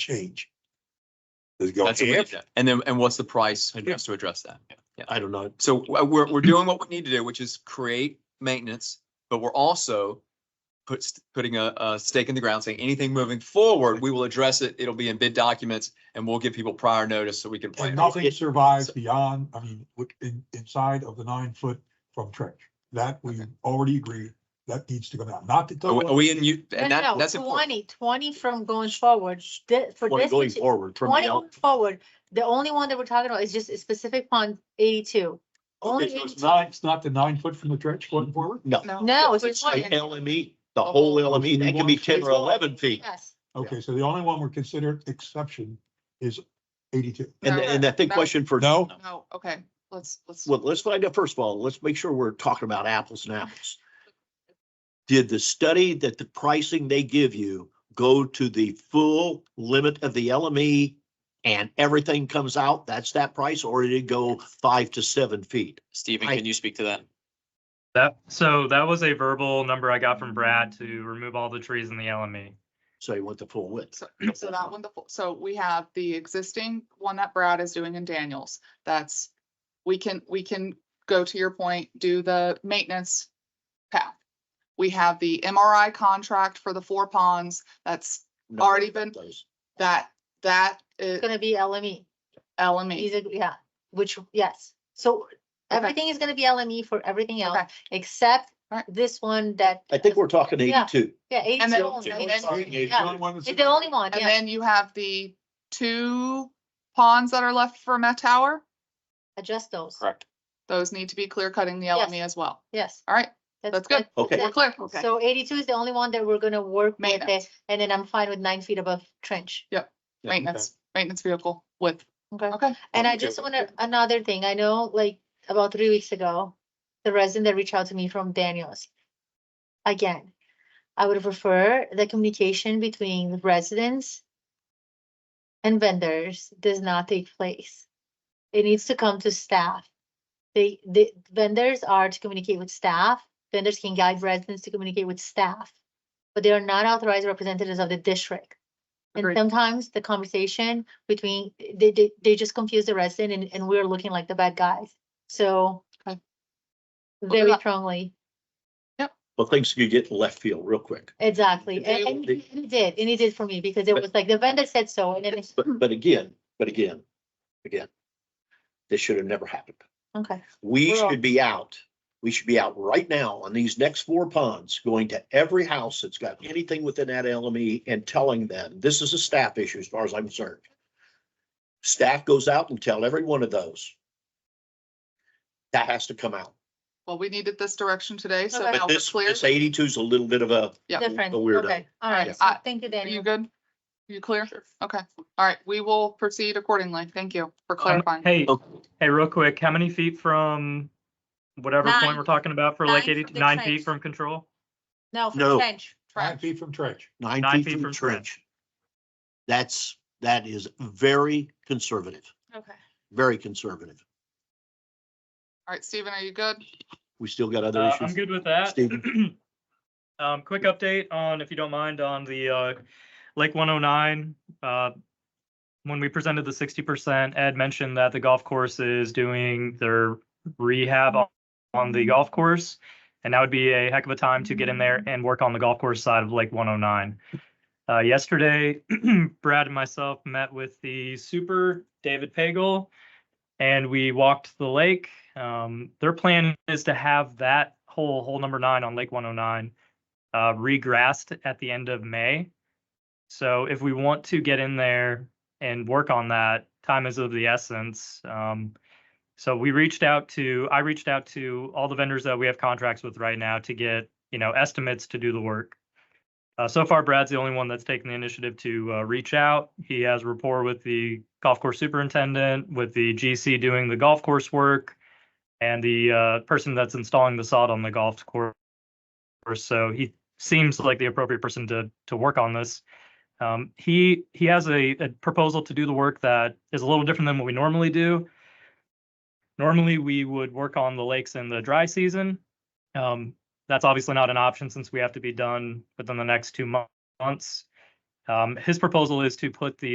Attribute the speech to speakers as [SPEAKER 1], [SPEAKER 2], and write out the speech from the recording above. [SPEAKER 1] change. Does it go
[SPEAKER 2] That's what we
[SPEAKER 1] half?
[SPEAKER 2] did. And then, and what's the price
[SPEAKER 1] Yeah.
[SPEAKER 2] to address that? Yeah.
[SPEAKER 1] I don't know.
[SPEAKER 2] So uh, we're, we're doing what we need to do, which is create maintenance, but we're also puts, putting a, a stake in the ground saying anything moving forward, we will address it. It'll be in bid documents and we'll give people prior notice so we can
[SPEAKER 1] And
[SPEAKER 2] plan.
[SPEAKER 1] nothing survives beyond, I mean, with- in, inside of the nine foot from trench. That we already agreed, that needs to go down, not to.
[SPEAKER 2] Are we- are we in you, and
[SPEAKER 3] No,
[SPEAKER 2] that,
[SPEAKER 3] no,
[SPEAKER 2] that's important.
[SPEAKER 3] twenty, twenty from going forward, sh- thi- for
[SPEAKER 4] Twenty
[SPEAKER 3] this,
[SPEAKER 4] going
[SPEAKER 3] parti-
[SPEAKER 4] forward from
[SPEAKER 3] twenty
[SPEAKER 4] now.
[SPEAKER 3] going forward, the only one that we're talking about is just a specific pond eighty-two. Only
[SPEAKER 1] Okay, so it's
[SPEAKER 3] 82.
[SPEAKER 1] not, it's not the nine foot from the trench going forward?
[SPEAKER 4] No,
[SPEAKER 3] No, it's just
[SPEAKER 4] like
[SPEAKER 3] one,
[SPEAKER 4] LME, the
[SPEAKER 5] Oh,
[SPEAKER 4] whole LME, that can be ten or eleven feet.
[SPEAKER 3] yes,
[SPEAKER 1] Okay, so the only one we're considered exception is eighty-two.
[SPEAKER 4] And, and I think question for.
[SPEAKER 1] No?
[SPEAKER 5] No, okay, let's, let's.
[SPEAKER 4] Well, let's find out, first of all, let's make sure we're talking about apples and apples. Did the study that the pricing they give you go to the full limit of the LME? And everything comes out, that's that price, or did it go five to seven feet?
[SPEAKER 6] Stephen,
[SPEAKER 4] I-
[SPEAKER 6] can you speak to that?
[SPEAKER 7] That, so that was a verbal number I got from Brad to remove all the trees in the LME.
[SPEAKER 4] So you want the full width.
[SPEAKER 5] So so that one, the, full- so we have the existing one that Brad is doing in Daniels. That's, we can, we can go to your point, do the maintenance path. We have the MRI contract for the four ponds. That's,
[SPEAKER 4] No,
[SPEAKER 5] Already been-
[SPEAKER 4] those.
[SPEAKER 5] that, that
[SPEAKER 3] it's
[SPEAKER 5] is
[SPEAKER 3] gonna be LME, these
[SPEAKER 5] LME.
[SPEAKER 3] are, yeah, which, yes, so
[SPEAKER 5] Okay.
[SPEAKER 3] everything is gonna be LME for everything else,
[SPEAKER 5] Okay.
[SPEAKER 3] except
[SPEAKER 5] Alright.
[SPEAKER 3] this one that.
[SPEAKER 4] I think we're talking
[SPEAKER 3] Yeah.
[SPEAKER 4] eighty-two.
[SPEAKER 3] Yeah,
[SPEAKER 5] And
[SPEAKER 3] eighty-two,
[SPEAKER 5] then-
[SPEAKER 3] only,
[SPEAKER 5] and
[SPEAKER 3] it's
[SPEAKER 5] then-
[SPEAKER 1] It's
[SPEAKER 3] yeah.
[SPEAKER 1] only one that's-
[SPEAKER 3] the only one,
[SPEAKER 5] And
[SPEAKER 3] yeah,
[SPEAKER 5] then you have the two ponds that are left for Met Tower.
[SPEAKER 3] adjust those,
[SPEAKER 6] Correct.
[SPEAKER 5] Those need to be clear cutting the
[SPEAKER 3] Yes.
[SPEAKER 5] LME as well.
[SPEAKER 3] yes.
[SPEAKER 5] All right, That's good.
[SPEAKER 4] Okay.
[SPEAKER 5] we're clear.
[SPEAKER 3] So eighty-two is the only one that we're gonna work with,
[SPEAKER 5] Maintenance.
[SPEAKER 3] it, and then I'm fine with nine feet above trench.
[SPEAKER 5] Maintenance, maintenance vehicle with,
[SPEAKER 3] Okay.
[SPEAKER 5] okay.
[SPEAKER 3] And I
[SPEAKER 4] Okay.
[SPEAKER 3] just wanna, another thing, I know like about three weeks ago, the resident that reached out to me from Daniels. Again, I would prefer the communication between the residents and vendors does not take place. It needs to come to staff. They, the vendors are to communicate with staff, vendors can guide residents to communicate with staff. But they are not authorized representatives of the district. And
[SPEAKER 5] Agreed.
[SPEAKER 3] sometimes the conversation between, they, they, they just confuse the resident and, and we're looking like the bad guys, so.
[SPEAKER 5] Okay.
[SPEAKER 3] Very
[SPEAKER 5] that-
[SPEAKER 3] strongly,
[SPEAKER 4] Well, things could get in left field real quick.
[SPEAKER 3] exactly,
[SPEAKER 5] They-
[SPEAKER 3] and, and he and he did, and he did for me, because it
[SPEAKER 4] But-
[SPEAKER 3] was like, the vendor said so, and then it's,
[SPEAKER 4] But, but again, but again, again, this should have never happened.
[SPEAKER 3] okay,
[SPEAKER 4] We
[SPEAKER 3] Well-
[SPEAKER 4] should be out, we should be out right now on these next four ponds, going to every house that's got anything within that LME and telling them, this is a staff issue as far as I'm concerned. Staff goes out and tell every one of those. That has to come out.
[SPEAKER 5] Well, we needed this direction today, so
[SPEAKER 3] Okay.
[SPEAKER 5] now
[SPEAKER 4] But
[SPEAKER 5] we're
[SPEAKER 4] this,
[SPEAKER 5] clear.
[SPEAKER 4] this eighty-two is a little bit of a,
[SPEAKER 5] Yeah.
[SPEAKER 3] different,
[SPEAKER 4] a weirdo.
[SPEAKER 3] okay, all
[SPEAKER 5] Yeah.
[SPEAKER 3] right, so
[SPEAKER 5] I-
[SPEAKER 3] thank you,
[SPEAKER 5] Are you
[SPEAKER 3] Daniel.
[SPEAKER 5] good? You clear? Okay, all right, we will proceed accordingly. Thank you for
[SPEAKER 7] Um,
[SPEAKER 5] clarifying.
[SPEAKER 7] Hey,
[SPEAKER 4] Okay.
[SPEAKER 7] hey, real quick, how many feet from whatever
[SPEAKER 3] Nine.
[SPEAKER 7] point we're talking about for
[SPEAKER 3] Nine
[SPEAKER 7] Lake
[SPEAKER 3] from
[SPEAKER 7] eighty,
[SPEAKER 3] the
[SPEAKER 7] nine
[SPEAKER 3] trench.
[SPEAKER 7] feet from control?
[SPEAKER 3] No,
[SPEAKER 4] No.
[SPEAKER 3] for trench,
[SPEAKER 1] Nine
[SPEAKER 5] Trash.
[SPEAKER 1] feet from trench.
[SPEAKER 4] nine
[SPEAKER 7] Nine
[SPEAKER 4] feet from the trench. That's, that is very conservative,
[SPEAKER 3] okay.
[SPEAKER 4] very conservative.
[SPEAKER 5] All right, Stephen, are you good?
[SPEAKER 4] We still got other
[SPEAKER 7] Uh,
[SPEAKER 4] issues.
[SPEAKER 7] I'm good with that. Um, quick update on, if you don't mind, on the, uh, Lake one oh nine, uh, when we presented the sixty percent, Ed mentioned that the golf course is doing their rehab on- on the golf course. And that would be a heck of a time to get in there and work on the golf course side of Lake one oh nine. Uh, yesterday, Brad and myself met with the super David Pagel. And we walked the lake. Um, their plan is to have that hole, hole number nine on Lake one oh nine, uh, regrassed at the end of May. So if we want to get in there and work on that, time is of the essence. Um, so we reached out to, I reached out to all the vendors that we have contracts with right now to get, you know, estimates to do the work. Uh, so far, Brad's the only one that's taken the initiative to uh, reach out. He has rapport with the golf course superintendent, with the GC doing the golf course work, and the uh, person that's installing the sod on the golf course. So he seems like the appropriate person to to work on this. Um, he he has a, a proposal to do the work that is a little different than what we normally do. Normally, we would work on the lakes in the dry season. Um, that's obviously not an option since we have to be done within the next two mo- months. Um, his proposal is to put the